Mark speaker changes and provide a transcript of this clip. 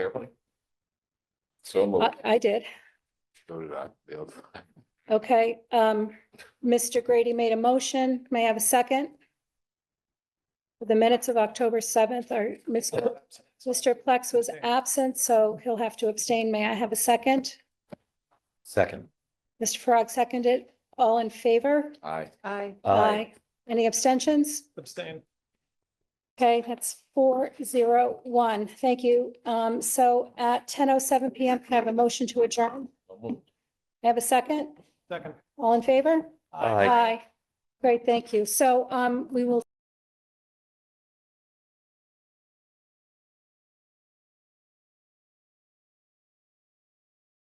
Speaker 1: Everybody? So
Speaker 2: I,
Speaker 1: moved.
Speaker 2: I did.
Speaker 1: So did I. The other side.
Speaker 2: Okay, um, Mr. Grady made a motion. May I have a second? The minutes of October seventh are, Mr. Mr. Plex was absent, so he'll have to abstain. May I have a second?
Speaker 3: Second.
Speaker 2: Mr. Frog seconded. All in favor?
Speaker 1: Aye.
Speaker 4: Aye.
Speaker 2: Any abstentions?
Speaker 5: Abstain.
Speaker 2: Okay, that's four zero one. Thank you. Um, so at ten oh seven PM, can I have a motion to adjourn?
Speaker 1: So moved.
Speaker 2: May I Have a second?
Speaker 5: Second.
Speaker 2: All in favor?
Speaker 3: Aye.
Speaker 2: Great, thank you. So um, we will